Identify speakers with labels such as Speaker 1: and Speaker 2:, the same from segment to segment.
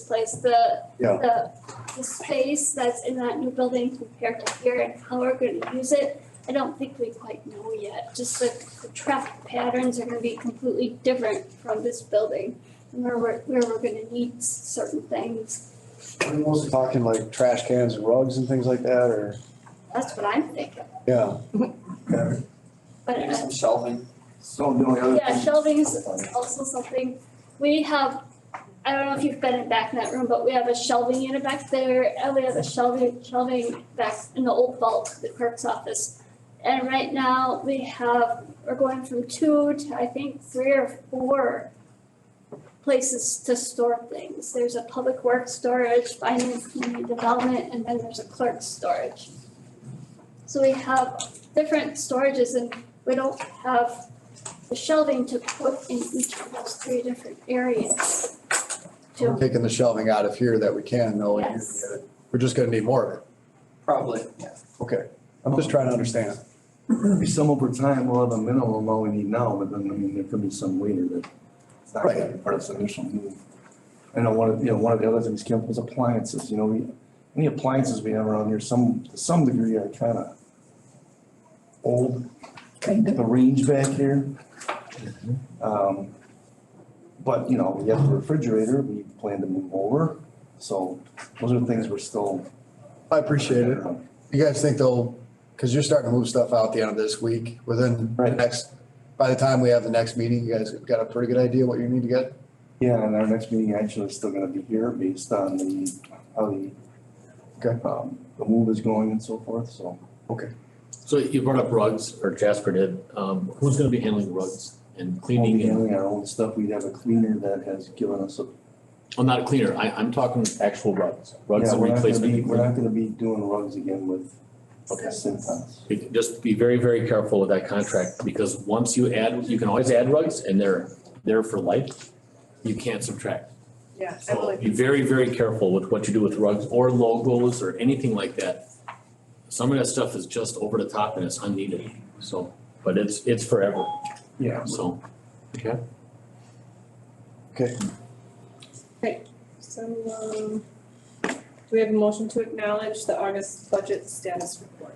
Speaker 1: place, the,
Speaker 2: Yeah.
Speaker 1: the, the space that's in that new building compared to here and how we're gonna use it, I don't think we quite know yet, just like the traffic patterns are gonna be completely different from this building. And where we're, where we're gonna need certain things,
Speaker 2: We're mostly talking like trash cans and rugs and things like that, or,
Speaker 1: that's what I'm thinking,
Speaker 2: yeah.
Speaker 1: but. uh,
Speaker 3: Maybe
Speaker 1: I-
Speaker 3: some shelving.
Speaker 2: So the only
Speaker 1: Yeah, shelving is is also something, we have, I don't know if you've been in back in that room, but we have a shelving unit back there, and we have a shelving, shelving back in the old vault, the clerk's office. And right now, we have, we're going from two to, I think, three or four places to store things. There's a public works storage, finance, community development, and then there's a clerk's storage. So we have different storages and we don't have the shelving to put in each of those three different areas.
Speaker 2: We're
Speaker 1: To,
Speaker 2: taking the shelving out of here that we can, though, and
Speaker 1: Yes.
Speaker 2: using it. We're just gonna need more of it.
Speaker 3: Probably, yeah.
Speaker 2: Okay, I'm just trying to understand.
Speaker 4: Maybe some over time, we'll have a minimum of what we need now, but then, I mean, there could be some later that it's not gonna be part of the initial move. I know one of, you know, one of the other things Kim was appliances, you know, we, any appliances we have around here, some, to some degree are kinda old. The range back here.
Speaker 2: Mm-hmm.
Speaker 4: Um, but, you know, we have the refrigerator, we plan to move over, so those are things we're still.
Speaker 2: I appreciate it. You guys think they'll, because you're starting to move stuff out the end of this week, within the
Speaker 4: Right.
Speaker 2: next, by the time we have the next meeting, you guys have got a pretty good idea what you need to get?
Speaker 4: Yeah, and our next meeting actually is still gonna be here based on the, how the,
Speaker 2: Okay.
Speaker 4: um, the move is going and so forth, so.
Speaker 5: So you brought up rugs, or Jasper did, um, who's gonna be handling rugs and
Speaker 4: We'll
Speaker 5: cleaning
Speaker 4: be
Speaker 5: and,
Speaker 4: Handling our own stuff, we have a cleaner that has given us a.
Speaker 5: oh, not a cleaner, I, I'm talking actual rugs, rugs
Speaker 4: Yeah,
Speaker 5: and
Speaker 4: we're not gonna
Speaker 5: replacement.
Speaker 4: be- We're not gonna be doing rugs again with
Speaker 5: Okay.
Speaker 4: Cintas.
Speaker 5: You can Just be very, very careful with that contract, because once you add, you can always add rugs, and they're there for life, you can't subtract.
Speaker 6: Yeah, I
Speaker 5: So
Speaker 6: believe,
Speaker 5: be very, very careful with what you do with rugs or logos or anything like that. Some of that stuff is just over the top and it's unneeded, so, but it's, it's forever,
Speaker 4: Yeah.
Speaker 5: so. Okay.
Speaker 2: Okay,
Speaker 6: so, um, do we have a motion to acknowledge the August budget status report?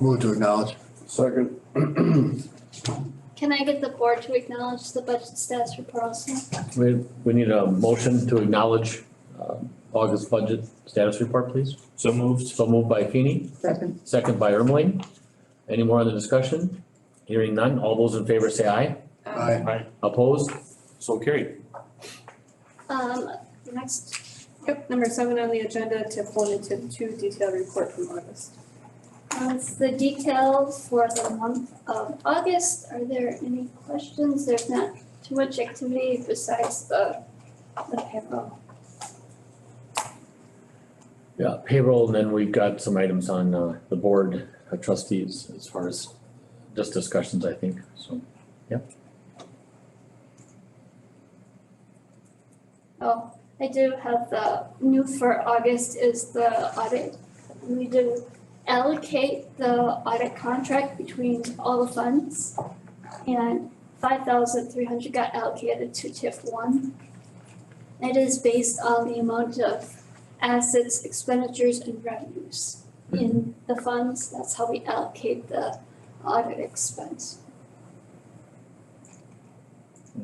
Speaker 2: move to acknowledge.
Speaker 4: Second.
Speaker 1: can I get the board to acknowledge the budget status report also?
Speaker 5: We, we need a motion to acknowledge um, August budget status report, please. So moved. So moved by Feeny. Second. Second by Ermeling. Any more on the discussion? Hearing none, all those in favor say aye.
Speaker 6: Um,
Speaker 2: Aye.
Speaker 5: Opposed? So carried.
Speaker 1: Um, the next,
Speaker 6: Yep, number seven on the agenda, tip one and tip two, detailed report from August.
Speaker 1: That's the detail for the month of August. Are there any questions? There's not too much activity besides the, the payroll.
Speaker 5: Yeah, payroll, and then we've got some items on uh, the board of trustees as far as just discussions, I think, so.
Speaker 1: Oh, I do have the new for August is the audit. We do allocate the audit contract between all the funds. And five thousand three hundred got allocated to TIF one. It is based on the amount of assets, expenditures and revenues in the funds. That's how we allocate the audit expense.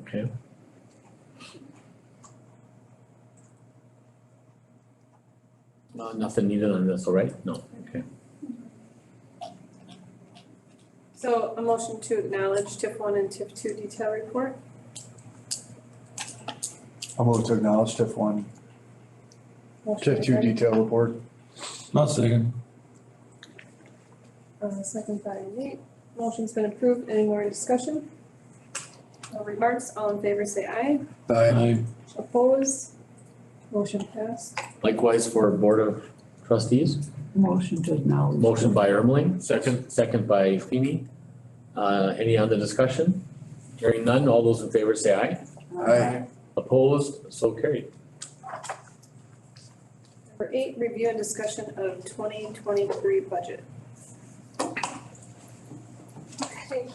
Speaker 5: Okay. Uh, nothing needed on this, all right? No, okay.
Speaker 6: So a motion to acknowledge tip one and tip two detail report,
Speaker 2: I'll move to acknowledge TIF one,
Speaker 6: motion
Speaker 2: TIF two
Speaker 6: by-
Speaker 2: detail report.
Speaker 7: I'll second.
Speaker 6: Uh, second by Nate, motion's been approved, any more discussion? No remarks, all in favor say aye,
Speaker 2: Aye.
Speaker 7: Aye.
Speaker 6: opposed, motion passed.
Speaker 5: Likewise for Board of Trustees,
Speaker 8: Motion to acknowledge.
Speaker 5: motion by Ermeling, second, second by Feeny. Uh, any on the discussion? Hearing none, all those in favor say aye.
Speaker 2: Aye.
Speaker 5: Opposed, so carried.
Speaker 6: Number eight, review and discussion of twenty twenty-three budget.
Speaker 1: Okay,